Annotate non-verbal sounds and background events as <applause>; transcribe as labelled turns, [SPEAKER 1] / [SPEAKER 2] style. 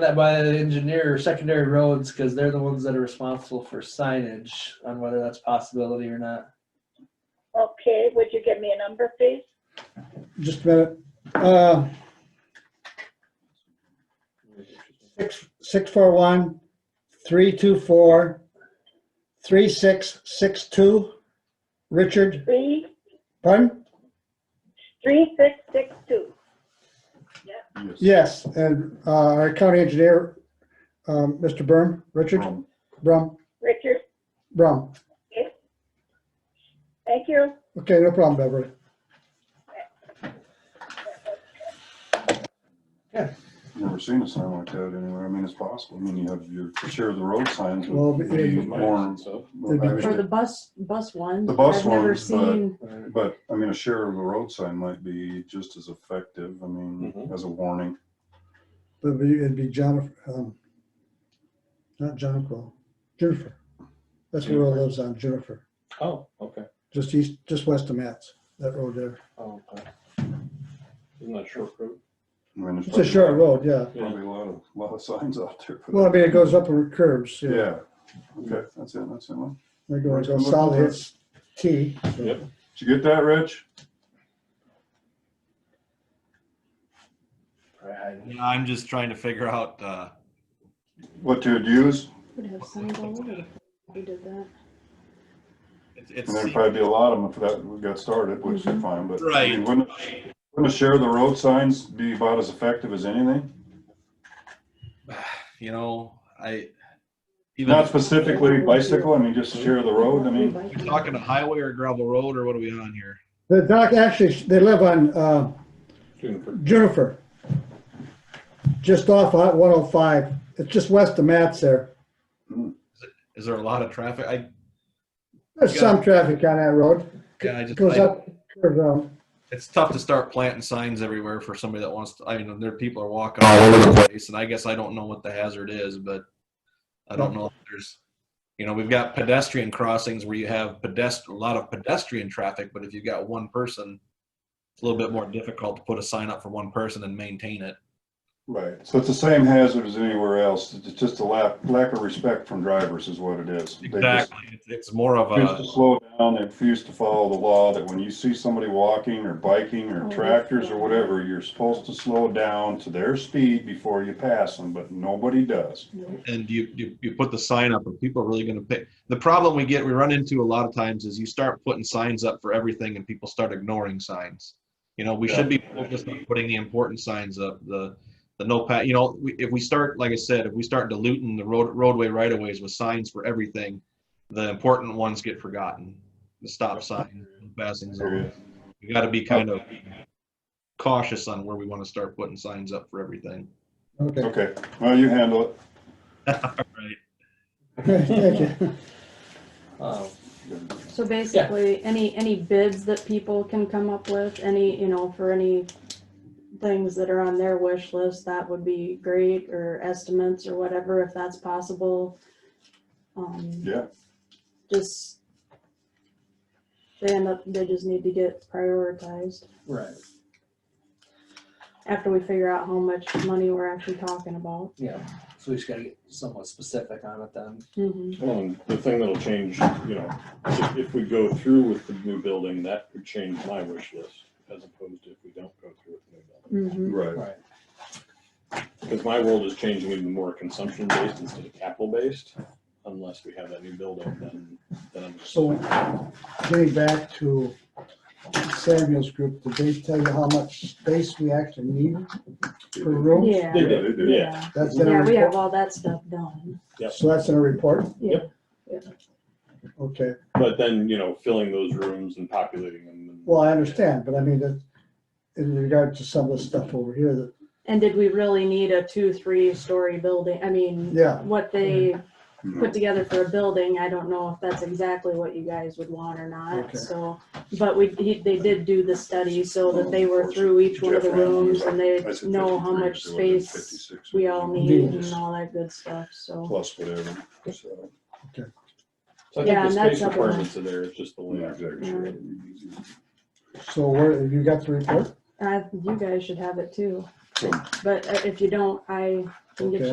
[SPEAKER 1] that by the engineer or secondary roads, because they're the ones that are responsible for signage on whether that's possibility or not.
[SPEAKER 2] Okay, would you give me a number, please?
[SPEAKER 3] just a minute. Uh, Six, six, four, one, three, two, four, three, six, six, two. Richard,
[SPEAKER 2] Three,
[SPEAKER 3] pardon?
[SPEAKER 2] three, six, six, two.
[SPEAKER 3] Yes, and uh, our county engineer, um, Mr. Brum, Richard
[SPEAKER 4] Brum.
[SPEAKER 3] Brum,
[SPEAKER 2] Richard,
[SPEAKER 3] Brum.
[SPEAKER 2] thank you.
[SPEAKER 3] Okay, no problem, Beverly.
[SPEAKER 4] Never seen a sign like that anywhere. I mean, it's possible. I mean, you have your share of the road signs. but
[SPEAKER 3] Well, but
[SPEAKER 4] it'd be
[SPEAKER 3] it-
[SPEAKER 4] more-
[SPEAKER 3] it'd be-
[SPEAKER 4] I
[SPEAKER 5] For the
[SPEAKER 4] mean,
[SPEAKER 5] bus, bus ones.
[SPEAKER 4] The bus
[SPEAKER 5] I've never
[SPEAKER 4] ones, but-
[SPEAKER 5] seen,
[SPEAKER 4] But, I mean, a share of the road sign might be just as effective, I mean,
[SPEAKER 1] Mhm.
[SPEAKER 4] as a warning.
[SPEAKER 3] It'd be, it'd be Jennifer, um, not Jonquil, Jennifer. That's where it lives on, Jennifer,
[SPEAKER 6] Oh, okay.
[SPEAKER 3] just east, just west of Matt's, that road there.
[SPEAKER 6] Oh, okay. Isn't that short road?
[SPEAKER 4] I mean, there's
[SPEAKER 3] It's a short road, yeah.
[SPEAKER 4] Probably a lot of, lot of signs out there. for
[SPEAKER 3] Well, I
[SPEAKER 4] that.
[SPEAKER 3] mean, it goes up with curves, yeah.
[SPEAKER 4] Yeah, okay, that's it, that's it. man.
[SPEAKER 3] It goes, goes south, hits T. so-
[SPEAKER 6] Yep.
[SPEAKER 4] Did you get that, Rich?
[SPEAKER 1] Right.
[SPEAKER 7] Yeah, I'm just trying to figure out, uh,
[SPEAKER 4] What to use?
[SPEAKER 5] would have signs all over. it. We did that.
[SPEAKER 7] it's, it's
[SPEAKER 4] And there'd probably be a lot of them if that we got started, which is fine, but. I mean,
[SPEAKER 7] Right.
[SPEAKER 4] Wouldn't, wouldn't a share of the road signs be about as effective as anything?
[SPEAKER 7] you know, I,
[SPEAKER 4] Not
[SPEAKER 7] even,
[SPEAKER 4] specifically bicycle, I mean, just share of the road, I mean.
[SPEAKER 7] you're talking a highway or gravel road or what are we on here?
[SPEAKER 3] The doc, actually, they live on, uh,
[SPEAKER 6] Juniper.
[SPEAKER 3] Juniper. Just off I- 105. It's just west of Matt's there.
[SPEAKER 7] Is there a lot of traffic? I,
[SPEAKER 3] There's some traffic on that road.
[SPEAKER 7] yeah, I just,
[SPEAKER 3] Goes
[SPEAKER 7] I-
[SPEAKER 3] up, curves out.
[SPEAKER 7] it's tough to start planting signs everywhere for somebody that wants to, I mean, there, people are walking all over the place and I guess I don't know what the hazard is, but I don't know if there's, you know, we've got pedestrian crossings where you have pedest, a lot of pedestrian traffic, but if you've got one person, it's a little bit more difficult to put a sign up for one person and maintain it.
[SPEAKER 4] Right, so it's the same hazard as anywhere else, it's just a lack, lack of respect from drivers is what it is. They just
[SPEAKER 7] Exactly. It's- It's more of
[SPEAKER 4] Refuse to
[SPEAKER 7] a,
[SPEAKER 4] slow down, they refuse to follow the law, that when you see somebody walking or biking
[SPEAKER 5] Oh,
[SPEAKER 4] or
[SPEAKER 5] that's
[SPEAKER 4] tractors or
[SPEAKER 5] right.
[SPEAKER 4] whatever, you're supposed to slow down to their speed before you pass them, but nobody does.
[SPEAKER 7] and you, you, you put the sign up and people are really gonna pay. The problem we get, we run into a lot of times is you start putting signs up for everything and people start ignoring signs. You know, we should be focused on putting the important signs up, the, the no pat, you know, we- if we start, like I said, if we start diluting the road, roadway right of ways with signs for everything, the important ones get forgotten, the stop sign, passing zone. We gotta be kind of cautious on where we wanna start putting signs up for everything.
[SPEAKER 3] Okay, <laughs>
[SPEAKER 4] Okay, well, you handle it.
[SPEAKER 3] thank you.
[SPEAKER 1] Um,
[SPEAKER 5] So basically, any, any bids that people can come up with, any, you know, for any things that are on their wish list, that would be great, or estimates or whatever, if that's possible. Um,
[SPEAKER 4] Yeah,
[SPEAKER 5] just, they end up, they just need to get prioritized
[SPEAKER 1] Right,
[SPEAKER 5] after we figure out how much money we're actually talking about.
[SPEAKER 1] yeah, so we just gotta get somewhat specific on it then.
[SPEAKER 5] Mhm.
[SPEAKER 6] Well, and the thing that'll change, you know, if, if we go through with the new building, that would change my wish list as opposed to if we don't go through with the new building.
[SPEAKER 5] Mhm.
[SPEAKER 4] right.
[SPEAKER 1] Right.
[SPEAKER 6] Because my world is changing even more consumption based instead of capital based, unless we have that new building, then, then I'm just.
[SPEAKER 3] So getting back to Samuel's group, did they tell you how much space we actually need per room?
[SPEAKER 5] Yeah,
[SPEAKER 4] Yeah, they do.
[SPEAKER 6] Yeah.
[SPEAKER 3] That's in
[SPEAKER 5] yeah,
[SPEAKER 3] our
[SPEAKER 5] we have
[SPEAKER 3] report.
[SPEAKER 5] all that stuff done.
[SPEAKER 3] So that's in our report?
[SPEAKER 5] Yeah.
[SPEAKER 3] Okay,
[SPEAKER 6] But then, you know, filling those rooms and populating them. and-
[SPEAKER 3] well, I understand, but I mean, that, in regard to some of the stuff over here, that,
[SPEAKER 5] And did we really need a two, three-story building? I mean,
[SPEAKER 3] yeah, Mm-hmm.
[SPEAKER 5] what they
[SPEAKER 4] No.
[SPEAKER 5] put together for a building, I don't know if that's exactly what you guys would want or
[SPEAKER 3] Okay.
[SPEAKER 5] not, so. But we, he- they did do the study so that they were through each one of the
[SPEAKER 4] Jeff Randall was
[SPEAKER 5] rooms
[SPEAKER 4] like-
[SPEAKER 5] and
[SPEAKER 4] I
[SPEAKER 5] they
[SPEAKER 4] said
[SPEAKER 5] know how
[SPEAKER 4] 53,
[SPEAKER 5] much
[SPEAKER 4] so it would've been
[SPEAKER 5] space
[SPEAKER 4] 56
[SPEAKER 5] we all need and all that good stuff, so.
[SPEAKER 4] Plus whatever, so.
[SPEAKER 6] So
[SPEAKER 5] Yeah,
[SPEAKER 6] I think
[SPEAKER 5] and
[SPEAKER 6] the
[SPEAKER 5] that's
[SPEAKER 6] space
[SPEAKER 5] up in the-
[SPEAKER 6] requirements are there, it's just the
[SPEAKER 4] yeah,
[SPEAKER 6] layout.
[SPEAKER 4] exactly.
[SPEAKER 3] so where, you got the report?
[SPEAKER 5] Uh, And I, you guys should have it too,
[SPEAKER 4] So-
[SPEAKER 5] but uh, if you don't, I can get
[SPEAKER 3] Okay.
[SPEAKER 5] you